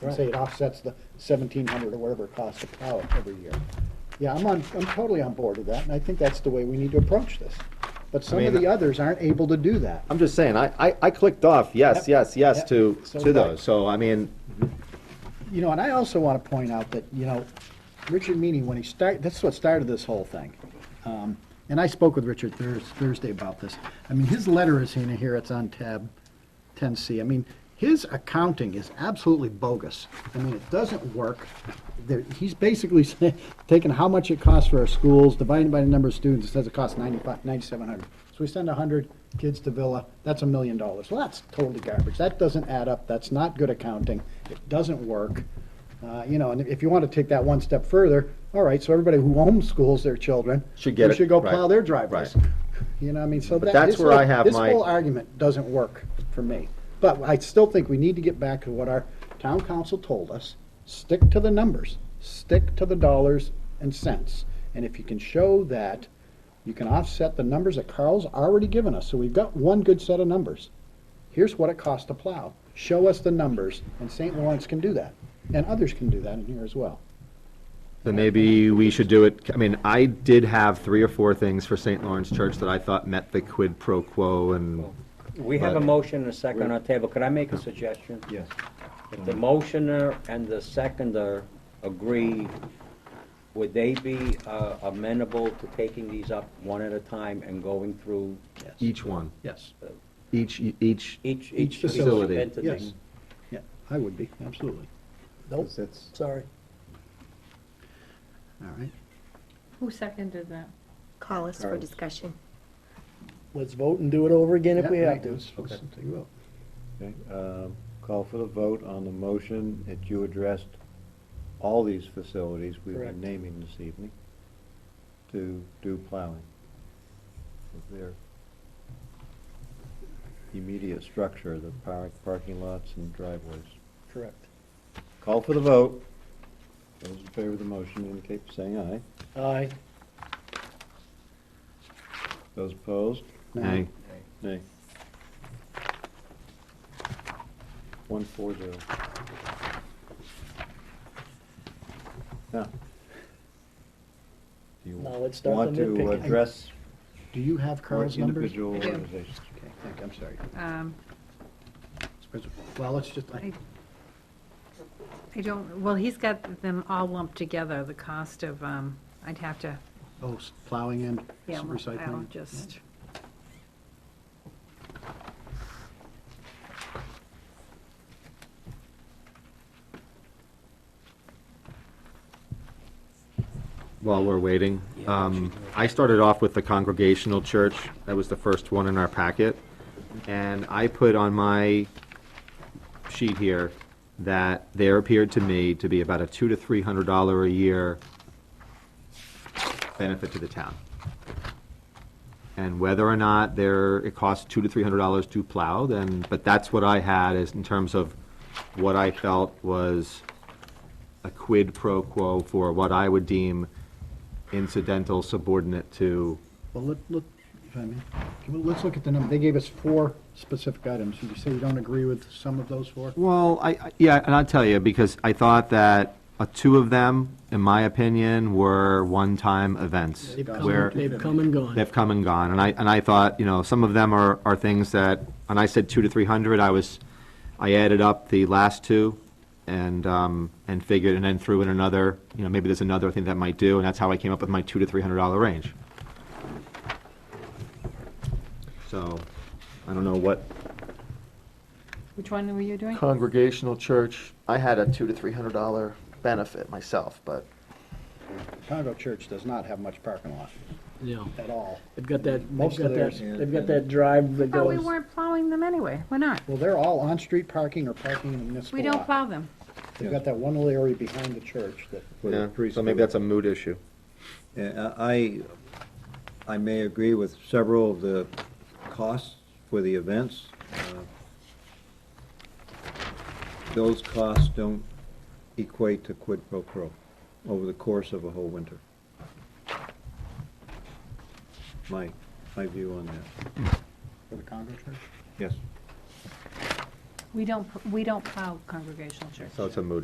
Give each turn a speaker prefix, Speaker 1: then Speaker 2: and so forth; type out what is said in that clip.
Speaker 1: and say it offsets the seventeen hundred or whatever it costs to plow it every year. Yeah, I'm on, I'm totally on board with that, and I think that's the way we need to approach this. But some of
Speaker 2: mean-
Speaker 1: the others aren't able to do that.
Speaker 2: I'm just saying, I, I, I clicked off, yes,
Speaker 1: Yep.
Speaker 2: yes, yes
Speaker 1: Yep.
Speaker 2: to,
Speaker 1: So
Speaker 2: to
Speaker 1: did I.
Speaker 2: those, so I mean,
Speaker 1: You know, and I also want to point out that, you know, Richard Meany, when he started, that's what started this whole thing. Um, And I spoke with Richard Thurs- Thursday about this. I mean, his letter is in here, it's on tab 10C. I mean, his accounting is absolutely bogus. I mean, it doesn't work. There- He's basically saying- taking how much it costs for our schools, dividing by the number of students, it says it costs 95 9,700. So we send 100 kids to Villa, that's a million dollars. Well, that's totally garbage. That doesn't add up, that's not good accounting, it doesn't work. Uh, You know, and if you want to take that one step further, all right, so everybody who homeschools their children.
Speaker 2: Should get
Speaker 1: we
Speaker 2: it,
Speaker 1: should go
Speaker 2: right,
Speaker 1: plow their driveways.
Speaker 2: right.
Speaker 1: You know, what I mean, so
Speaker 2: But
Speaker 1: that.
Speaker 2: that's
Speaker 1: this
Speaker 2: where
Speaker 1: whole-
Speaker 2: I have my-
Speaker 1: This whole argument doesn't work for me. But I still think we need to get back to what our town council told us. Stick to the numbers, stick to the dollars and cents. And if you can show that you can offset the numbers that Carl's already given us, so we've got one good set of numbers. Here's what it costs to plow. Show us the numbers, and St. Lawrence can do that. And others can do that in here as well.
Speaker 2: then maybe we should do it, I mean, I did have three or four things for St. Lawrence Church that I thought met the quid pro quo and,
Speaker 3: We have a motion and a second on the table. Could I make a suggestion?
Speaker 4: Yes.
Speaker 3: If the motioner and the seconder agree, would they be uh, amenable to taking these up one at a time and going through uh,
Speaker 2: each one,
Speaker 1: Yes.
Speaker 2: each, each,
Speaker 3: each,
Speaker 1: Each
Speaker 3: each
Speaker 2: facility.
Speaker 3: entity?
Speaker 1: Yes. Yeah, I would be, absolutely.
Speaker 4: Nope, sorry.
Speaker 1: All right.
Speaker 5: Who seconded that?
Speaker 6: Call us for discussion.
Speaker 4: Let's vote and do it over again if we
Speaker 1: Yeah,
Speaker 4: have
Speaker 1: right,
Speaker 4: to.
Speaker 1: let's- let's take a vote.
Speaker 7: Okay, um, Call for the vote on the motion that you addressed all these facilities we've
Speaker 4: Correct.
Speaker 7: been naming this evening to do plowing. With their immediate structure, the park, parking lots and driveways.
Speaker 4: Correct.
Speaker 7: Call for the vote. Those in favor of the motion indicate by saying aye.
Speaker 4: Aye.
Speaker 7: Those opposed?
Speaker 2: Hey,
Speaker 7: Nay. One four zero. Now. Do you
Speaker 4: Now let's start the
Speaker 7: Want to
Speaker 4: nitpicking.
Speaker 7: address
Speaker 1: Do you have
Speaker 7: more
Speaker 1: Carl's numbers?
Speaker 7: individual
Speaker 5: I do.
Speaker 7: organizations?
Speaker 1: Okay, thank you, I'm sorry.
Speaker 5: Um,
Speaker 1: Well, let's just, I-
Speaker 5: I I don't, well, he's got them all lumped together, the cost of, um, I'd have to,
Speaker 1: oh, s- plowing and
Speaker 5: yeah,
Speaker 1: s-
Speaker 5: I'll
Speaker 1: recycling.
Speaker 5: just,
Speaker 2: while we're waiting. Um, I started off with the Congregational Church, that was the first one in our packet. And I put on my sheet here that there appeared to me to be about a two to three hundred dollar a year benefit to the town. And whether or not there, it costs two to three hundred dollars to plow, then, but that's what I had is in terms of what I felt was a quid pro quo for what I would deem incidental subordinate to,
Speaker 1: Well, let, let, if I may, can we- let's look at the number. They gave us four specific items. Did you say you don't agree with some of those four?
Speaker 2: well, I, I- yeah, and I'll tell you, because I thought that uh, two of them, in my opinion, were one-time events.
Speaker 1: They've come-
Speaker 2: where-
Speaker 1: they've
Speaker 4: They've come and gone.
Speaker 2: They've come and gone, and I, and I thought, you know, some of them are, are things that, and I said two to three hundred, I was, I added up the last two and, um, and figured, and then threw in another, you know, maybe there's another thing that might do, and that's how I came up with my two to three hundred dollar range. So, I don't know what.
Speaker 5: which one were you doing?
Speaker 8: congregational church, I had a two to three hundred dollar benefit myself, but
Speaker 1: Congo Church does not have much parking lot
Speaker 4: Yeah.
Speaker 1: at all.
Speaker 4: They've got that,
Speaker 1: Most
Speaker 4: they've
Speaker 1: of
Speaker 4: got that,
Speaker 1: theirs-
Speaker 4: they've got that drive that
Speaker 5: Oh, we
Speaker 4: goes.
Speaker 5: weren't plowing them anyway, we're not.
Speaker 1: Well, they're all on-street parking or parking in the municipal
Speaker 5: We don't
Speaker 1: lot.
Speaker 5: plow them.
Speaker 1: They've got that one little area behind the church that,
Speaker 7: with the
Speaker 2: So maybe
Speaker 7: preschool.
Speaker 2: that's a mood issue.
Speaker 7: Yeah, Uh, I, I may agree with several of the costs for the events. Uh, Those costs don't equate to quid pro quo over the course of a whole winter. My, my view on that,
Speaker 1: for the Congo Church.
Speaker 7: yes.
Speaker 5: We don't, we don't plow congregational churches.
Speaker 2: So it's a moot